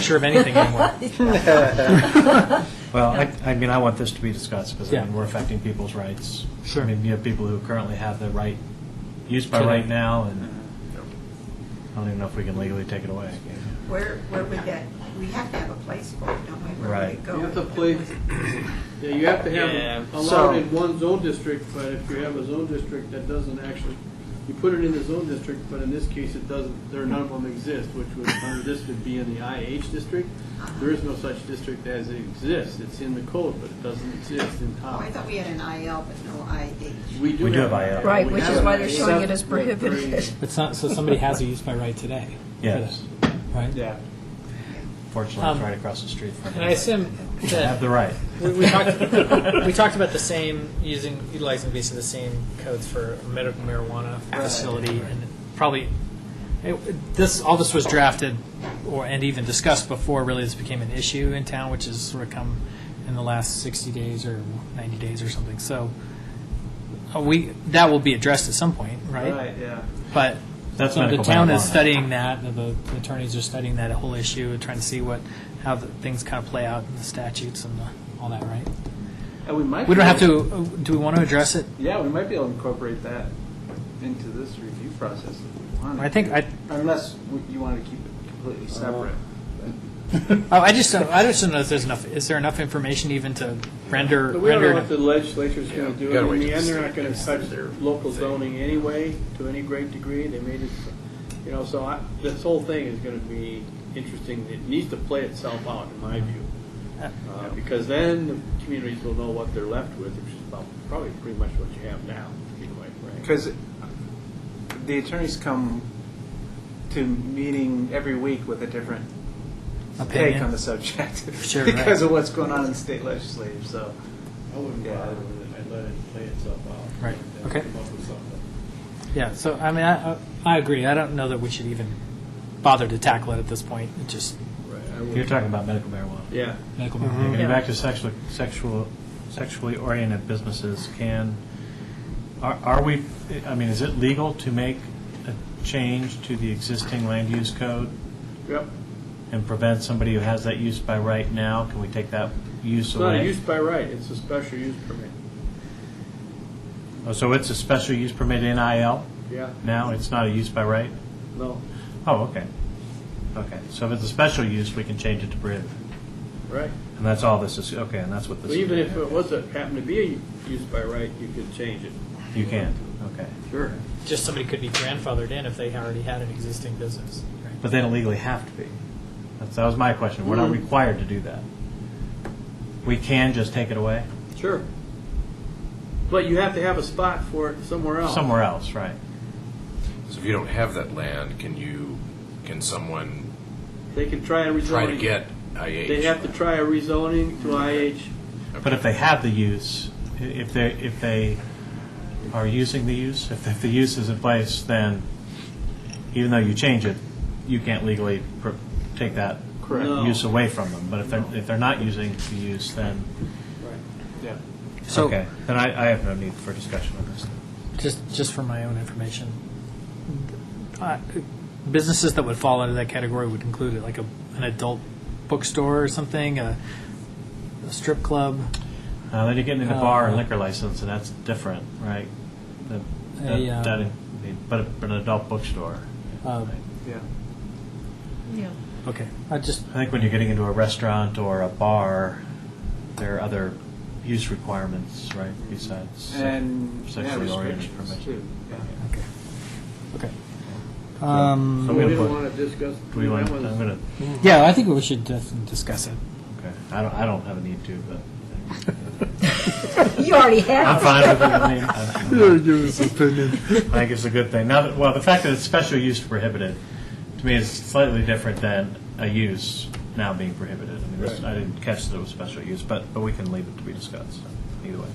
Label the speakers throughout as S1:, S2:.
S1: sure of anything anymore.
S2: Well, I, I mean, I want this to be discussed, because I
S1: Yeah.
S2: mean, we're affecting people's rights.
S1: Sure.
S2: I mean, you have people who currently have their right, used by
S1: Today.
S2: right now, and I don't even know if we can legally take it away.
S3: Where, where would that, we have to have a place for it, don't we? Where would
S2: Right.
S3: it go?
S4: You have to play, yeah, you have to
S1: Yeah.
S4: have allowed in one zone district, but if you have a zone district that doesn't actually, you put it in the zone district, but in this case, it doesn't, there, none of them exist, which would, under this would be in the IH district. There is no such district as it exists, it's in the code, but it doesn't exist in
S3: Oh, I
S4: town.
S3: thought we had an IL, but no IH.
S4: We do
S2: We do
S4: have.
S2: have IL.
S5: Right,
S4: we
S5: which
S4: have
S5: is why
S4: an
S5: they're
S4: IH.
S5: showing it as
S4: We're very-
S5: prohibited.
S1: It's not, so somebody has a use by right today. for
S2: Yes.
S1: this, Right?
S4: Yeah.
S2: Fortunately, it's
S1: Um,
S2: right across the street from
S6: And I
S2: us.
S6: assume
S2: They have
S6: that
S2: the right.
S6: we, we talked we talked about the same using utilizing basically the same codes for medical marijuana facility and probably it, this all this was drafted or and even discussed before really this became an issue in town, which has sort of come in the last 60 days or 90 days or something. So uh, we that will be addressed at some point, right?
S4: Right, yeah.
S6: But
S2: That's
S6: so the
S2: medical
S6: town
S2: marijuana.
S6: is studying that, and the the attorneys are studying that whole issue and trying to see what, how the things kind of play out in the statutes and the- all that, right?
S4: And we might.
S6: We don't
S4: be
S6: have
S4: able-
S6: to, uh, do we want to address it?
S4: Yeah, we might be able to incorporate that into this review process if we wanted.
S6: I think, I,
S4: Unless w- you wanted to keep it completely separate.
S6: oh, I just, don't- I just don't know if there's enough, is there enough information even to render,
S4: But we don't know
S6: render?
S4: what the legislature's gonna do,
S7: gotta
S4: and in
S7: wait
S4: the
S7: till
S4: end,
S7: the
S4: they're not gonna touch
S7: their
S4: local zoning anyway, to any great degree, they made it, you know, so I, this whole thing is gonna be interesting, it needs to play itself out, in my view. Uh, Because then the communities will know what they're left with, which is about, probably pretty much what you have now, anyway, right?
S8: Because the attorneys come to meeting every week with a different take on
S6: Opinion?
S8: the subject.
S6: Sure, right.
S8: Because of what's going on in the state legislature, so.
S4: I wouldn't bother with it, I'd let it play itself out.
S6: Right,
S4: and
S6: okay.
S4: come up with something.
S6: Yeah, so, I mean, I, I- I agree, I don't know that we should even bother to tackle it at this point, it just,
S4: Right, I
S2: You're
S4: would,
S2: talking about medical marijuana.
S4: yeah.
S6: medical
S2: You're
S6: marijuana.
S2: going back to sexual, sexual, sexually oriented businesses can, are, are we, I mean, is it legal to make a change to the existing land use code
S4: Yep.
S2: and prevent somebody who has that use by right now? Can we take that use
S4: It's not a
S2: away?
S4: use by right, it's a special use permit,
S2: Oh, So it's a special use permit NIL
S4: yeah,
S2: now? It's not a use by right?
S4: no,
S2: Oh, okay. Okay, so if it's a special use, we can change it to prohibited.
S4: right?
S2: And that's all this is, okay, and that's what this
S4: Well,
S2: is.
S4: even if it was, a happened to be a use by right, you could change it.
S2: You can, okay.
S4: Sure.
S6: Just somebody could be grandfathered in if they already had an existing business, right?
S2: But they don't legally have to be. That's, that was my question. We're
S4: Hmm.
S2: not required to do that. We can just take it away
S4: Sure. But you have to have a spot for it somewhere else.
S2: somewhere else, right?
S7: So if you don't have that land, can you, can someone
S4: They could try a rezoning.
S7: try to get IH?
S4: They have to try a rezoning to IH.
S2: But if they have the use, i- if they if they are using the use, if, if the use is in place, then even though you change it, you can't legally pr- take that
S4: Correct. No.
S2: use away from them. But if they're if they're not using the use, then
S4: Yeah.
S6: So-
S2: okay, then I, I have no need for discussion on this.
S6: just just for my own information, I- businesses that would fall under that category would include it, like a, an adult bookstore or something, a, a strip club.
S2: Uh, then you're getting into bar and
S6: Uh,
S2: liquor license, and that's different, right? That, that,
S6: A, uh,
S2: that in- but, but an adult bookstore.
S6: Uh,
S4: Yeah.
S5: Yeah.
S6: okay, I just
S2: I think when you're getting into a restaurant or a bar, there are other use requirements, right? Besides
S8: And yeah,
S2: sexually oriented
S8: restrictions,
S2: permission.
S8: too. Yeah.
S6: okay okay. Um,
S4: So
S2: I'm
S4: we
S2: gonna
S4: don't
S2: put-
S4: want to discuss.
S2: Do we want?
S4: that
S2: I'm
S4: was-
S2: gonna.
S6: yeah, I think we should definitely discuss it.
S2: Okay. I don't. I don't have a need to, but
S5: You already
S2: I'm
S5: have.
S2: fine with it. I mean, I, I think it's a good thing. Now, that, well, the fact that it's special use prohibited, to me, is slightly different than a use now being prohibited. I mean, this, I didn't catch that it was special use, but, but we can leave it to be discussed, either way.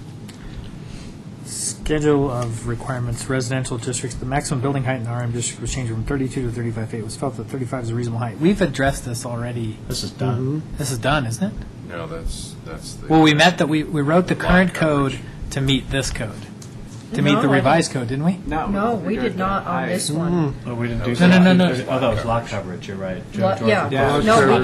S6: Schedule of requirements, residential districts, the maximum building height in the RM district was changed from 32 to 35 feet. It was felt that 35 is a reasonable height. We've addressed this already.
S2: This is done.
S6: This is done, isn't it?
S7: No, that's, that's the.
S6: Well, we met that, we, we wrote the
S7: Lot
S6: current code
S7: coverage.
S6: to meet this code, to meet
S5: No,
S6: the
S5: I
S6: revised code, didn't we?
S8: No.
S5: No, we did not on this one.
S2: Oh, we didn't
S7: do
S2: do
S7: No,
S2: that.
S6: no, no, no.
S2: Oh, that was lot coverage, you're right. George-
S5: Well,
S2: George-
S5: Yeah,
S8: Yeah.
S5: no, we